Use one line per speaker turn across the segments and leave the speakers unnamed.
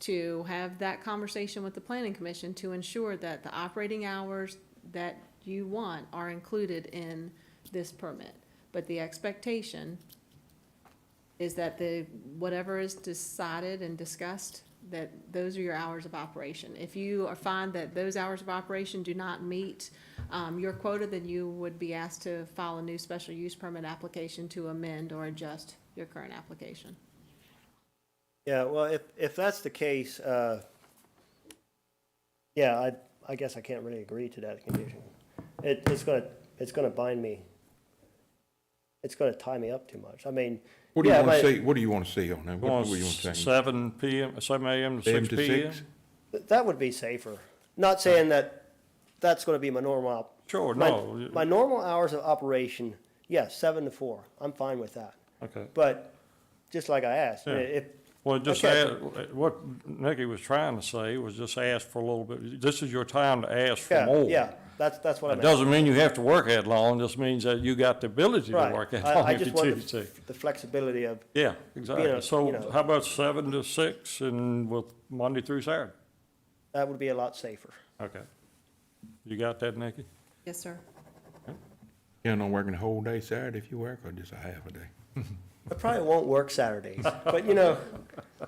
to have that conversation with the planning commission to ensure that the operating hours that you want are included in this permit. But the expectation is that the, whatever is decided and discussed, that those are your hours of operation. If you are find that those hours of operation do not meet, um, your quota, then you would be asked to file a new special use permit application to amend or adjust your current application.
Yeah, well, if, if that's the case, uh, yeah, I, I guess I can't really agree to that condition. It, it's gonna, it's gonna bind me. It's gonna tie me up too much. I mean,
What do you
yeah,
want to
but
see, what do you want to see on that? What
Going
do you want to change?
seven PM, seven AM to
Seven
six
to
PM?
six?
That would be safer. Not saying that that's gonna be my normal. op-
Sure,
my-
no,
My normal hours of operation, yes, seven to four. I'm fine with that.
okay.
But just like I asked,
Yeah.
if,
Well, just
Okay.
add, what Nikki was trying to say was just ask for a little bit, this is your time to ask for
yeah,
more.
yeah, that's, that's what I
It
meant.
doesn't mean you have to work that long, just means that you got the ability to
Right.
work that
I-
long
I
if you
just wanted
choose to.
The flexibility of,
Yeah,
know,
exactly.
you know.
So how about seven to six and with Monday through Saturday?
that would be a lot safer.
Okay. You got that, Nikki?
Yes, sir.
You know, working the whole day Saturday if you work, or just a half a day?
I probably won't work Saturdays, but you know,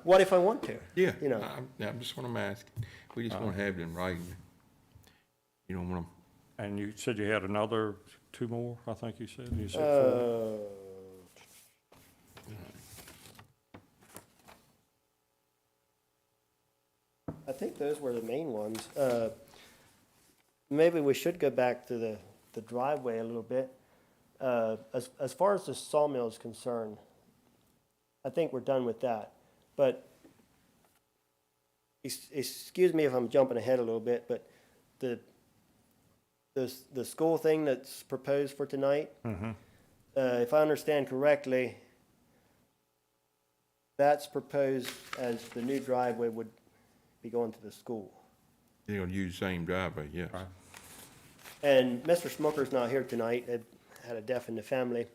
what if I want to?
Yeah.
You know.
I'm, I'm just what I'm asking. We just want to have it in writing. You don't want
And you said you had another two more, I think you said, you said
Uh,
four.
I think those were the main ones. Uh, Maybe we should go back to the, the driveway a little bit. Uh, As, as far as the sawmill is concerned, I think we're done with that. But, ex- excuse me if I'm jumping ahead a little bit, but the, the, the school thing that's proposed for tonight, uh, if I understand correctly, that's proposed as the new driveway would be going to the school.
to, you know, use the same driveway, yes.
Right.
And Mr. Smucker's not here tonight, It had a death in the family,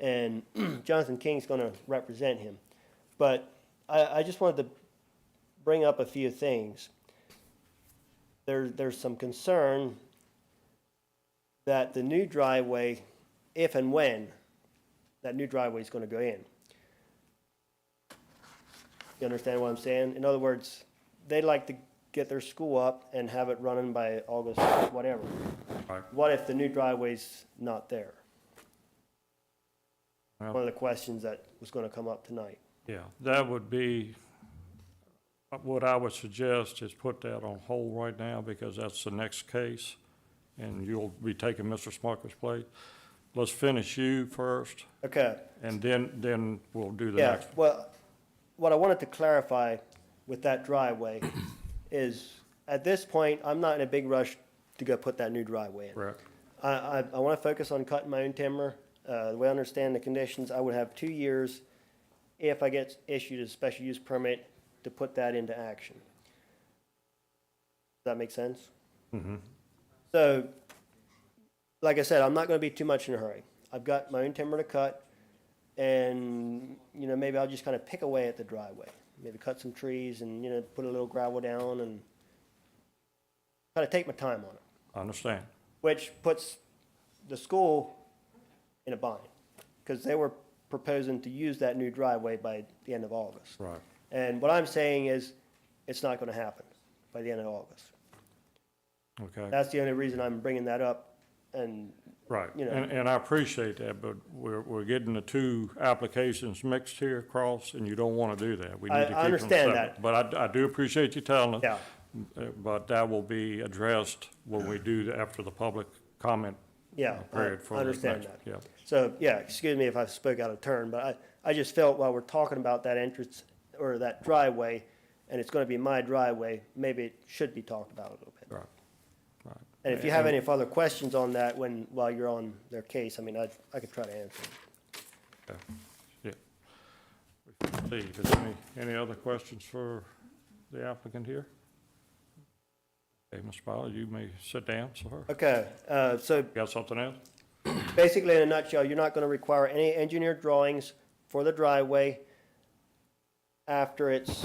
and Jonathan King's gonna represent him. But I, I just wanted to bring up a few things. There, there's some concern that the new driveway, if and when that new driveway is gonna go in. You understand what I'm saying? In other words, they like to get their school up and have it running by August, whatever.
Right.
What if the new driveway's not there?
Well-
One of the questions that was gonna come up tonight.
Yeah, that would be, uh, what I would suggest is put that on hold right now because that's the next case. And you'll be taking Mr. Smucker's place. Let's finish you first
Okay,
and then, then we'll do the
yeah,
next.
well, what I wanted to clarify with that driveway is, at this point, I'm not in a big rush to go put that new driveway in.
Correct.
I, I, I want to focus on cutting my own timber. Uh, the way I understand the conditions, I would have two years if I get issued a special use permit to put that into action. Does that make sense? Mm-hmm. So, like I said, I'm not going to be too much in a hurry. I've got my own timber to cut, and you know maybe I'll just kind of pick away at the driveway. Maybe cut some trees and you know put a little gravel down and kind of take my time on it
I understand.
which puts the school in a bind because they were proposing to use that new driveway by the end of August.
Right.
And what I'm saying is, it's not going to happen by the end of August.
Okay,
That's the only reason I'm bringing that up. And
right.
you know.
And, and I appreciate that, but we're, we're getting the two applications mixed here across and you don't want to do that. We need
I-
to
I
keep them
understand
separate.
that.
But I, I do appreciate you telling us.
yeah,
Uh, But that will be addressed when we do, the- after the public comment
yeah, I
period for
I
the
understand
next-
that.
Yeah,
So, yeah, excuse me if I spoke out of turn, but I, I just felt while we're talking about that entrance or that driveway, and it's going to be my driveway, maybe it should be talked about a little bit.
right, right.
And if you have any further questions on that when, while you're on their case, I mean, I, I could try to answer.
Okay. Yeah. Steve, is there any, any other questions for the applicant here? Okay, Ms. Fowler, you may sit down, sir.
Okay, uh, so
Got something else?
basically in a nutshell, you're not gonna require any engineered drawings for the driveway after it's